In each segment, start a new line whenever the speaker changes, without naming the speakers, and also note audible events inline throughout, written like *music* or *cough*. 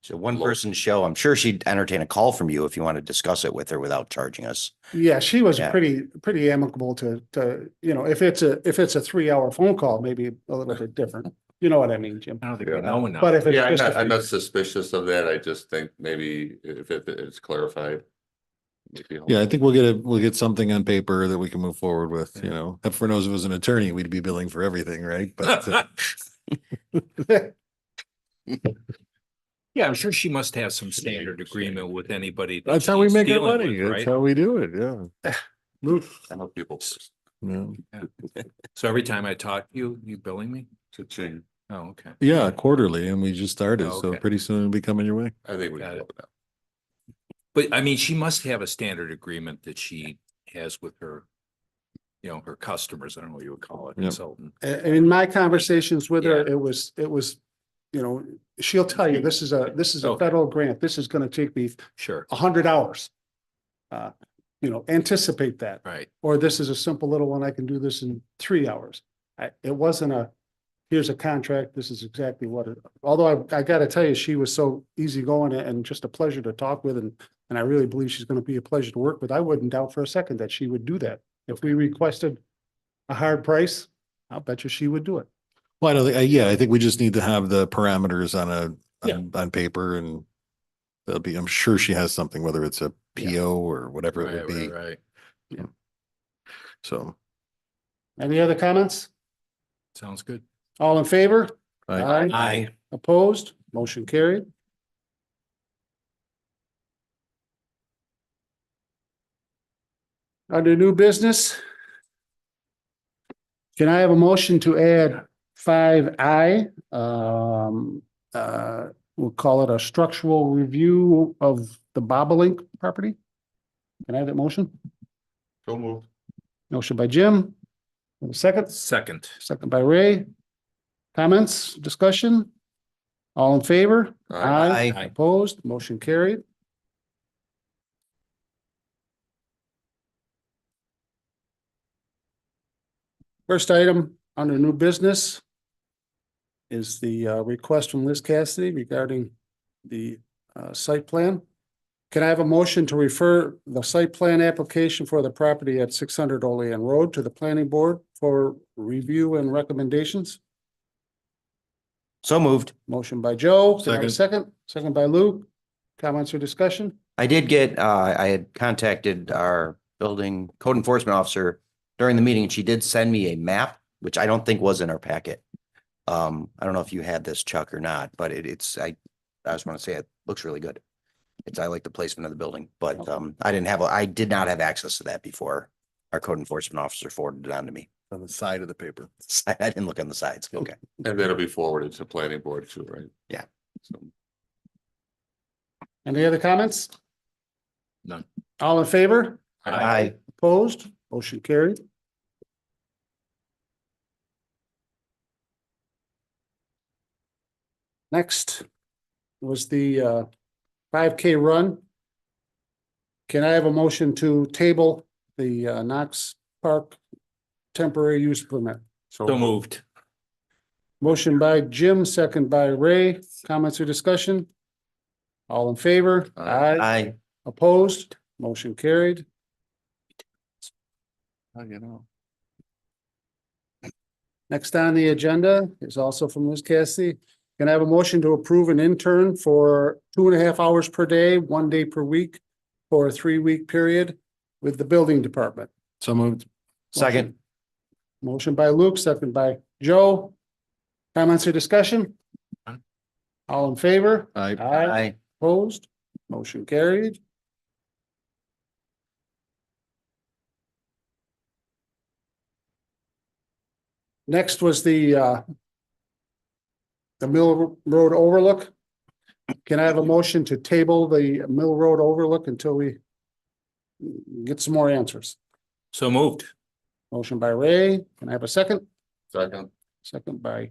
It's a one person show. I'm sure she'd entertain a call from you if you want to discuss it with her without charging us.
Yeah, she was
Yeah.
pretty, pretty amicable to, to, you know, if it's a, if it's a three hour phone call, maybe a little bit different. You know what I mean, Jim?
I don't think we
Yeah.
know enough.
But if it's
Yeah, I'm
just,
not,
a
I'm not
few-
suspicious of that. I just think maybe if it- it's clarified. it'd be helpful.
Yeah, I think we'll get a, we'll get something on paper that we can move forward with, you
Yeah.
know, heaven knows if it was an attorney, we'd be billing for everything, right? But *laughs* uh,
Yeah, I'm sure she must have some standard agreement with anybody. that
that's how we
she's
make our
dealing
money.
with,
That's
right?
how we do it, yeah.
I know people first.
Yeah,
So every time I talk to you, you billing me?
Cha-ching.
Oh, okay.
Yeah, quarterly and we just started,
Oh,
so
okay.
pretty soon it'll be coming your way.
I think we.
Got
can
it.
help now.
But I mean, she must have a standard agreement that she has with her, you know, her customers. I don't know what you would call it,
Yep.
consultant.
*laughs* a- and in my conversations with her,
Yeah.
it was, it was, you know, she'll tell you, this is a, this is a
Okay.
federal grant. This is gonna take me
Sure,
a hundred hours. Uh, you know, anticipate that.
right.
or this is a simple little one, I can do this in three hours. I, it wasn't a, here's a contract, this is exactly what it, although I, I gotta tell you, she was so easygoing and just a pleasure to talk with and, and I really believe she's gonna be a pleasure to work with. I wouldn't doubt for a second that she would do that. If we requested a hard price, I'll bet you she would do it.
Well, I don't think, I- yeah, I think we just need to have the parameters on a,
Yeah.
on, on paper and that'll be, I'm sure she has something, whether it's a PO or whatever it
Right,
would be,
right, right.
so.
Any other comments?
Sounds good.
All in favor?
Aye.
Aye.
Opposed? Motion carried. Under new business. Can I have a motion to add five I? Um, uh, we'll call it a structural review of the Bobolink property. Can I have that motion?
So moved.
Motion by Jim. Second?
Second.
Second by Ray. Comments, discussion? All in favor?
Aye.
Aye.
Opposed, motion carried. First item under new business is the uh, request from Liz Cassidy regarding the uh, site plan. Can I have a motion to refer the site plan application for the property at six hundred Olean Road to the planning board for review and recommendations?
So moved.
Motion by Joe, Can I have a second, second by Luke. Comments or discussion?
I did get, uh, I had contacted our building code enforcement officer during the meeting and she did send me a map, which I don't think was in our packet. Um, I don't know if you had this Chuck or not, but it, it's, I, I just want to say it looks really good. It's, I like the placement of the building, but, um, I didn't have, a- I did not have access to that before our code enforcement officer forwarded it on to me.
On the side of the paper.
I didn't look on the sides. Okay.
And that'll be forwarded to planning board too, right?
Yeah.
So,
Any other comments?
None.
All in favor?
Aye.
Opposed? Motion carried. Next was the uh, five K run. Can I have a motion to table the uh, Knox Park temporary use permit?
So moved.
Motion by Jim, second by Ray. Comments or discussion? All in favor?
Aye.
Aye.
Opposed? Motion carried.
How do you know?
Next on the agenda is also from Liz Cassidy. Can I have a motion to approve an intern for two and a half hours per day, one day per week for a three-week period with the building department?
So moved.
Second.
Motion by Luke, second by Joe. Comments or discussion?
None.
All in favor?
Aye.
Aye.
Opposed? Motion carried. Next was the uh the Mill Road Overlook. Can I have a motion to table the Mill Road Overlook until we get some more answers?
So moved.
Motion by Ray. Can I have a second?
Second.
Second by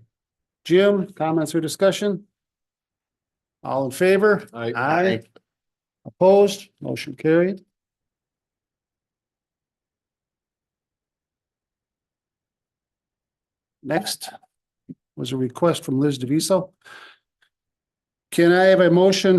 Jim. Comments or discussion? All in favor? Aye. Opposed, motion carried. Next was a request from Liz DeViso. Can I have a motion